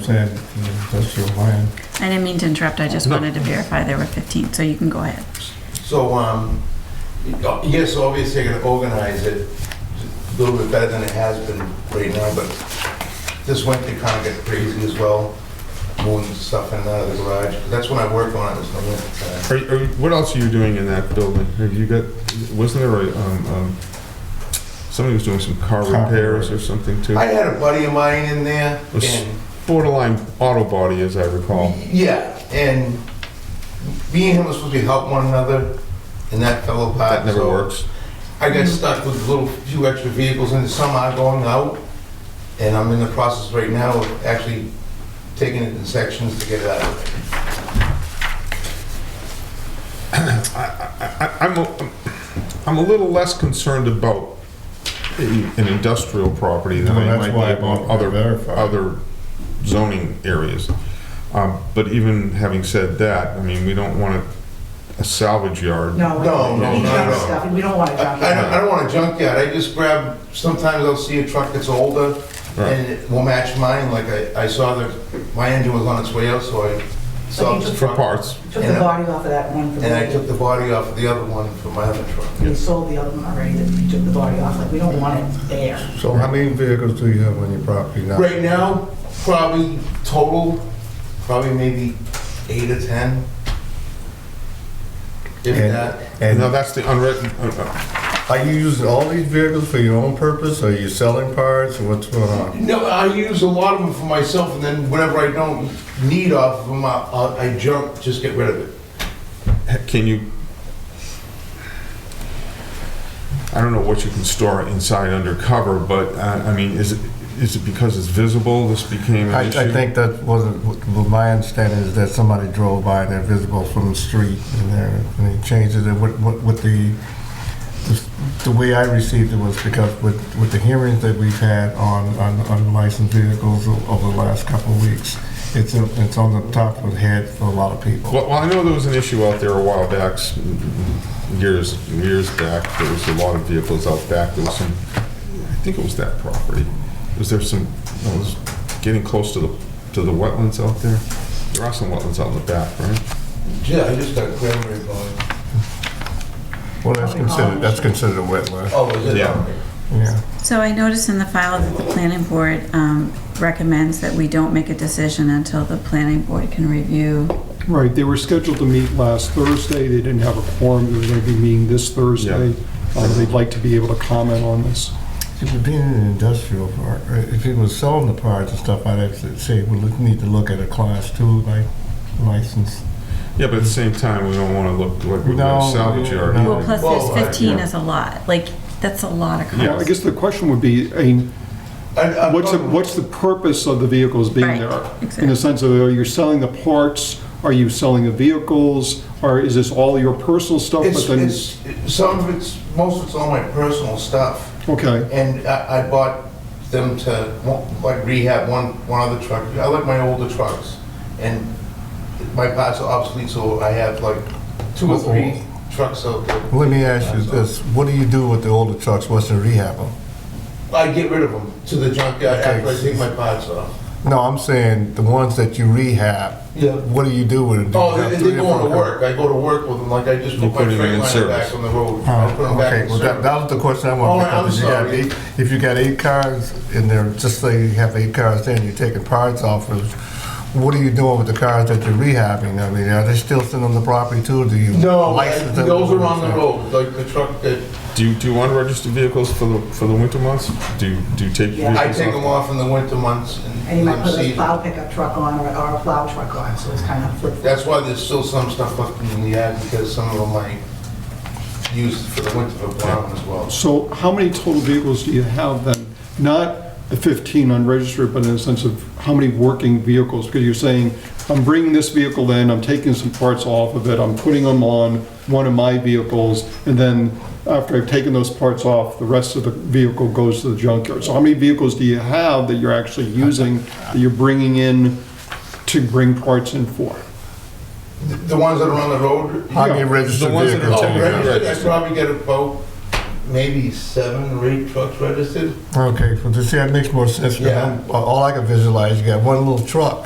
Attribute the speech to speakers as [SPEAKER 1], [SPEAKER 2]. [SPEAKER 1] said, in industrial land.
[SPEAKER 2] I didn't mean to interrupt, I just
[SPEAKER 1] No.
[SPEAKER 2] wanted to verify there were 15, so you can go ahead.
[SPEAKER 3] So, um, yes, obviously you're gonna organize it a little bit better than it has been right now, but this winter kind of got crazy as well, moving stuff in and out of the garage. That's when I work on it, is the winter time.
[SPEAKER 1] Are, are, what else are you doing in that building? Have you got, wasn't there a, um, um, somebody was doing some car
[SPEAKER 4] Car
[SPEAKER 1] repairs or something too?
[SPEAKER 3] I had a buddy of mine in there,
[SPEAKER 1] Was-
[SPEAKER 3] and,
[SPEAKER 1] Borderline auto body, as I recall.
[SPEAKER 3] yeah, and me and him were supposed to help one another, and that fell apart.
[SPEAKER 1] That never
[SPEAKER 3] so-
[SPEAKER 1] works.
[SPEAKER 3] I got stuck with little few extra vehicles and some are going out. And I'm in the process right now of actually taking it in sections to get it out. of there.
[SPEAKER 1] I, I, I'm, a, I'm a little less concerned about a- an industrial property than
[SPEAKER 4] Well,
[SPEAKER 1] I
[SPEAKER 4] that's
[SPEAKER 1] might
[SPEAKER 4] why I
[SPEAKER 1] be about
[SPEAKER 4] wanted to
[SPEAKER 1] other,
[SPEAKER 4] verify.
[SPEAKER 1] other zoning areas. Um, but even having said that, I mean, we don't want a, a salvage yard.
[SPEAKER 5] No, we
[SPEAKER 3] No,
[SPEAKER 5] don't
[SPEAKER 3] no,
[SPEAKER 5] want to
[SPEAKER 3] no,
[SPEAKER 5] junk
[SPEAKER 3] no.
[SPEAKER 5] stuff, and we don't want to junk
[SPEAKER 3] I I
[SPEAKER 5] it.
[SPEAKER 3] don't, I don't want a junkyard, I just grab, sometimes I'll see a truck that's older and it will match mine, like I, I saw that my engine was on its way out, so I
[SPEAKER 5] So
[SPEAKER 3] saw
[SPEAKER 5] you
[SPEAKER 3] the
[SPEAKER 5] just-
[SPEAKER 1] For
[SPEAKER 3] truck.
[SPEAKER 1] parts,
[SPEAKER 5] Took the body off of that one from
[SPEAKER 3] And I took
[SPEAKER 5] the,
[SPEAKER 3] the body off of the other one for my other truck.
[SPEAKER 5] we sold the other one already, that we took the body off, like, we don't want it there.
[SPEAKER 4] So how many vehicles do you have on your property now?
[SPEAKER 3] Right now, probably total, probably maybe eight or 10. If
[SPEAKER 4] And-
[SPEAKER 3] that.
[SPEAKER 1] now
[SPEAKER 4] And
[SPEAKER 1] that's the unwritten, uh,
[SPEAKER 4] are you using all these vehicles for your own purpose? Are you selling parts or what's going on?
[SPEAKER 3] No, I use a lot of them for myself, and then whenever I don't need off of them, I, I'll- I jump, just get rid of it.
[SPEAKER 1] uh, can you, I don't know what you can store inside undercover, but, uh, I mean, is it, is it because it's visible, this became
[SPEAKER 4] I,
[SPEAKER 1] an issue?
[SPEAKER 4] I think that wasn't, what- what my understanding is that somebody drove by and they're visible from the street and there, and they changed it, and what, what, what the, the way I received it was because with, with the hearings that we've had on, on unlicensed vehicles o- over the last couple of weeks, it's, in- it's on the top of the head for a lot of people.
[SPEAKER 1] Well, well, I know there was an issue out there a while back, s- years, years back, there was a lot of vehicles out back, there was some, I think it was that property. Was there some, it was getting close to the, to the wetlands out there? There are some wetlands out in the back, right?
[SPEAKER 3] Yeah, I just got cranberry going.
[SPEAKER 4] Well, that's considered, that's considered a wetland,
[SPEAKER 3] Oh, is it?
[SPEAKER 1] Yeah.
[SPEAKER 4] yeah.
[SPEAKER 2] So I noticed in the file that the planning board um, recommends that we don't make a decision until the planning board can review.
[SPEAKER 6] Right, they were scheduled to meet last Thursday, they didn't have a quorum, they're going to be meeting this Thursday. Uh, They'd like to be able to comment on this.
[SPEAKER 4] If it being an industrial park, or if it was selling the parts and stuff, I'd have to say, we look- need to look at a class two like license.
[SPEAKER 1] Yeah, but at the same time, we don't wanna look like we're
[SPEAKER 4] No,
[SPEAKER 1] gonna salvage yard.
[SPEAKER 4] no.
[SPEAKER 2] Well, plus
[SPEAKER 3] Well, I-
[SPEAKER 2] there's 15
[SPEAKER 1] yeah.
[SPEAKER 2] is a lot, like, that's a lot of
[SPEAKER 1] Yeah,
[SPEAKER 6] Well, I
[SPEAKER 2] cars.
[SPEAKER 6] guess the question would be, I mean,
[SPEAKER 3] Uh,
[SPEAKER 6] what's,
[SPEAKER 3] oh.
[SPEAKER 6] the- what's the purpose of the vehicles being
[SPEAKER 2] Right,
[SPEAKER 6] there? In
[SPEAKER 2] exactly.
[SPEAKER 6] the sense of, are you selling the parts, are you selling the vehicles, or is this all your personal stuff?
[SPEAKER 3] It's,
[SPEAKER 6] But then,
[SPEAKER 3] it's, it- some of it's, most of it's all my personal stuff,
[SPEAKER 6] Okay,
[SPEAKER 3] and I, I bought them to, like rehab one, one other truck. I like my older trucks, and my parts are obsolete, so I have like two or three trucks out there.
[SPEAKER 4] Let me ask you this, what do you do with the older trucks, what's the rehab them?
[SPEAKER 3] I get rid of them to the junkyard after I take my parts off.
[SPEAKER 4] No, I'm saying the ones that you rehab,
[SPEAKER 3] Yeah.
[SPEAKER 4] what do you do with it? Do you
[SPEAKER 3] Oh,
[SPEAKER 4] have
[SPEAKER 3] they,
[SPEAKER 4] three
[SPEAKER 3] they
[SPEAKER 4] or
[SPEAKER 3] go on
[SPEAKER 4] four?
[SPEAKER 3] to work. I go to work with them, like I just
[SPEAKER 1] You
[SPEAKER 3] put my
[SPEAKER 1] put it in
[SPEAKER 3] freight liner
[SPEAKER 1] service.
[SPEAKER 3] back on the road. I'll put
[SPEAKER 4] Oh,
[SPEAKER 3] them
[SPEAKER 4] Okay,
[SPEAKER 3] back in
[SPEAKER 4] well, that,
[SPEAKER 3] service.
[SPEAKER 4] that was the question I
[SPEAKER 3] Oh,
[SPEAKER 4] wanted to pick
[SPEAKER 3] I'm
[SPEAKER 4] up. If you got
[SPEAKER 3] sorry.
[SPEAKER 4] eight- If you got eight cars in there, just say you have eight cars there and you're taking parts off of, what are you doing with the cars that you're rehabbing? I mean, are they still sitting on the property too? Do you
[SPEAKER 3] No,
[SPEAKER 4] license
[SPEAKER 3] I-
[SPEAKER 4] them?
[SPEAKER 3] those are on the road, like the truck that,
[SPEAKER 1] Do you, do you want registered vehicles for the, for the winter months? Do you, do you take your
[SPEAKER 5] Yeah.
[SPEAKER 1] vehicles
[SPEAKER 3] I take them off in the winter months
[SPEAKER 5] And
[SPEAKER 3] and
[SPEAKER 5] you might
[SPEAKER 3] them
[SPEAKER 5] put a
[SPEAKER 3] season.
[SPEAKER 5] plow pickup truck on or or a plow truck on, so it's kind of flip.
[SPEAKER 3] That's why there's still some stuff left in the yard because some of them I used for the winter for plowing as well.
[SPEAKER 6] so how many total vehicles do you have then? Not the 15 unregistered, but in the sense of how many working vehicles? Because you're saying, I'm bringing this vehicle in, I'm taking some parts off of it, I'm putting them on one of my vehicles, and then after I've taken those parts off, the rest of the vehicle goes to the junkyard. So how many vehicles do you have that you're actually using, that you're bringing in to bring parts in for?
[SPEAKER 3] The- The ones that are on the road,
[SPEAKER 4] How many registered
[SPEAKER 1] The ones that are
[SPEAKER 4] vehicles?
[SPEAKER 3] oh,
[SPEAKER 1] Yeah.
[SPEAKER 3] registered, I probably get about maybe seven or eight trucks registered.
[SPEAKER 4] Okay, well, this, yeah, it makes more sense,
[SPEAKER 3] Yeah.
[SPEAKER 4] because all I can visualize, you got one little truck